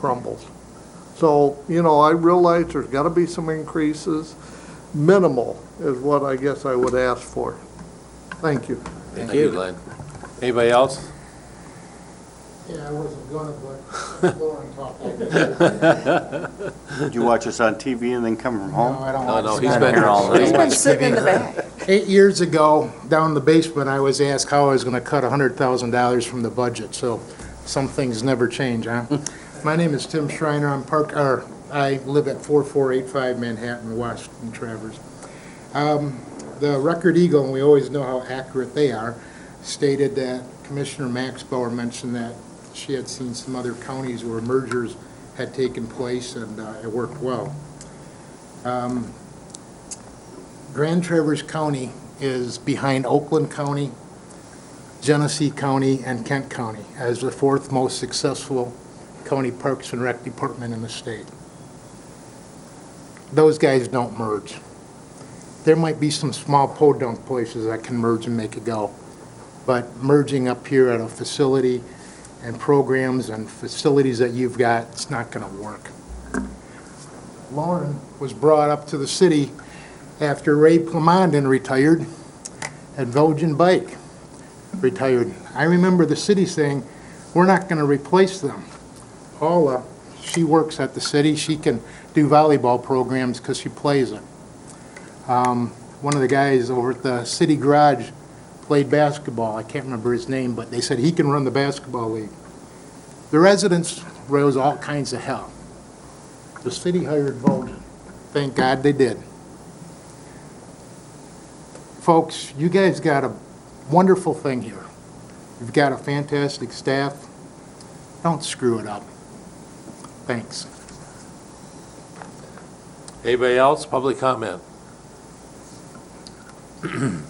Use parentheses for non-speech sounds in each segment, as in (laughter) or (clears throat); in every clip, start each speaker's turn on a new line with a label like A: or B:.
A: crumbles. So, you know, I realize there's got to be some increases. Minimal is what I guess I would ask for. Thank you.
B: Thank you, Glenn. Anybody else?
C: Yeah, I wasn't gonna, but Lauren talked like that.
D: Did you watch us on TV and then come from
C: No,
D: home?
C: I don't
B: No,
C: want
B: no,
C: to.
B: he's been,
D: here all
B: he's
D: night.
B: been-
E: sitting in the back.
C: Eight years ago, down in the basement, I was asked how I was gonna cut hundred thousand dollars from the budget, so some things never change, huh? My name is Tim Schreiner, I'm Park, or, I live at four four eight five Manhattan, Washington Travers. Um, The Record Eagle, and we always know how accurate they are, stated that Commissioner Max Bauer mentioned that she had seen some other counties where mergers had taken place and uh, it worked well. Um, Grand Traverse County is behind Oakland County, Genesee County, and Kent County as the fourth most successful county parks and rec department in the state. Those guys don't merge. There might be some small podunk places that can merge and make it go, but merging up here at a facility and programs and facilities that you've got, it's not going to work. Lauren was brought up to the city after Ray Plamondon retired and Belgian Bike retired. I remember the city saying, we're not going to replace them. Paula, she works at the city, she can do volleyball programs because she plays it. Um, One of the guys over at the city garage played basketball, I can't remember his name, but they said he can run the basketball league. The residents rose all kinds of hell. The city hired Belgian. Thank God they did. Folks, you guys got a wonderful thing here. You've got a fantastic staff. Don't screw it up. Thanks.
B: (laughs) anybody else? Public comment? (clears throat)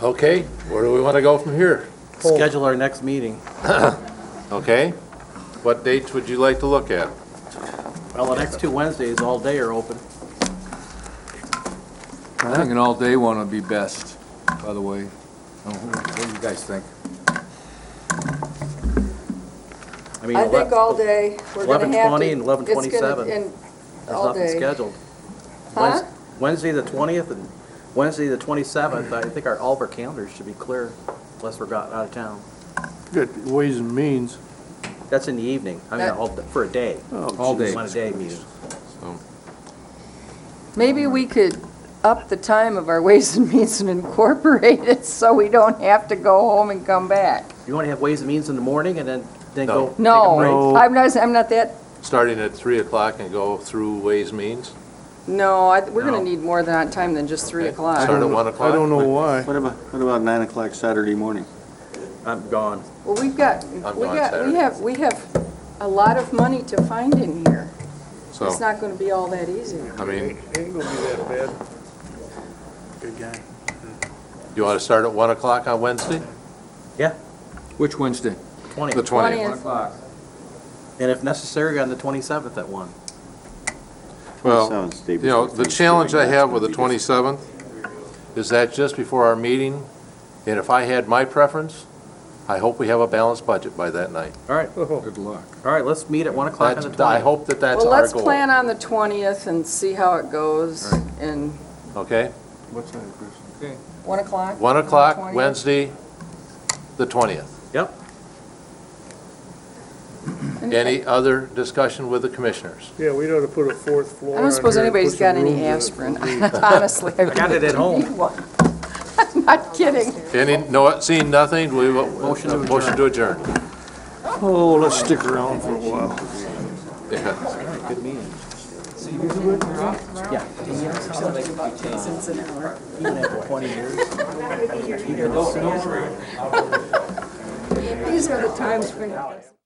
B: Okay, where do we want to go from here?
F: Schedule our next meeting.
B: Okay? What dates would you like to look at?
F: Well, the next two Wednesdays, all day are open.
G: I think an all-day one would be best, by the way. Oh, What do you guys think?
F: mean,
E: I think all day, we're gonna have to.
F: 11:20 and 11:27.
E: it's gonna- and
F: There's
E: all
F: nothing
E: day.
F: scheduled.
E: Huh?
F: Wednes- Wednesday, the 20th and Wednesday, the 27th, I think our, all of our calendars should be clear unless we're got out of town.
A: Good, Ways and Means. Oh,
F: That's in the evening, I mean,
E: That-
F: all- for a day.
G: All day.
F: One a day meeting.
E: Maybe we could up the time of our Ways and Means and incorporate it (laughs) so we don't have to go home and come back.
F: You want to have Ways and Means in the morning and then, then
B: No.
F: go take a break?
E: No, I'm not, I'm not that,
B: Starting at 3 o'clock and go through Ways Means?
E: no, I, we're
F: No.
E: gonna need more than, time than just three
B: Okay.
E: o'clock.
B: Start at 1 o'clock?
A: know why.
D: What about, what about nine o'clock Saturday morning?
F: I'm gone.
E: Well, we've got,
B: I'm
E: we
B: gone
E: got, we
B: Saturday.
E: have, we have a lot of money to find in here. It's
F: Oh.
B: So,
E: not gonna be all that easy.
B: I mean,
A: Ain't gonna be that bad. Good guy.
B: you want to start at 1 o'clock on Wednesday?
G: Which Wednesday?
F: 20th.
B: The 20th?
G: o'clock.
F: And if necessary, on the 27th at 1.
B: Well,
D: Sounds day
B: you know,
D: before
B: the challenge I
D: Thanksgiving,
B: have
D: that's
B: with the
D: gonna be different.
B: 27th is that just before our meeting, and if I had my preference, I hope we have a balanced budget by that night.
F: All right,
A: Oh,
G: Good luck.
F: all right, let's meet at 1 o'clock on the
B: That's- I
F: 20th.
B: hope that that's
E: Well,
B: our
E: let's
B: goal.
E: plan on the twentieth and see how it goes and
B: Okay?
E: one o'clock?
B: 1 o'clock,
E: 20th?
B: Wednesday, the 20th.
F: Yep.
E: And-
B: Any other discussion with the commissioners?
A: Yeah, we ought to put a fourth floor
E: I don't suppose anybody's got any aspirin. (laughs) Honestly, I
F: I got it at home.
E: need one. (laughs) I'm not kidding.
B: Any, no, seeing nothing, we will, motion to adjourn.
D: Oh, let's stick around for a while.
B: Yeah.
E: These are the times when.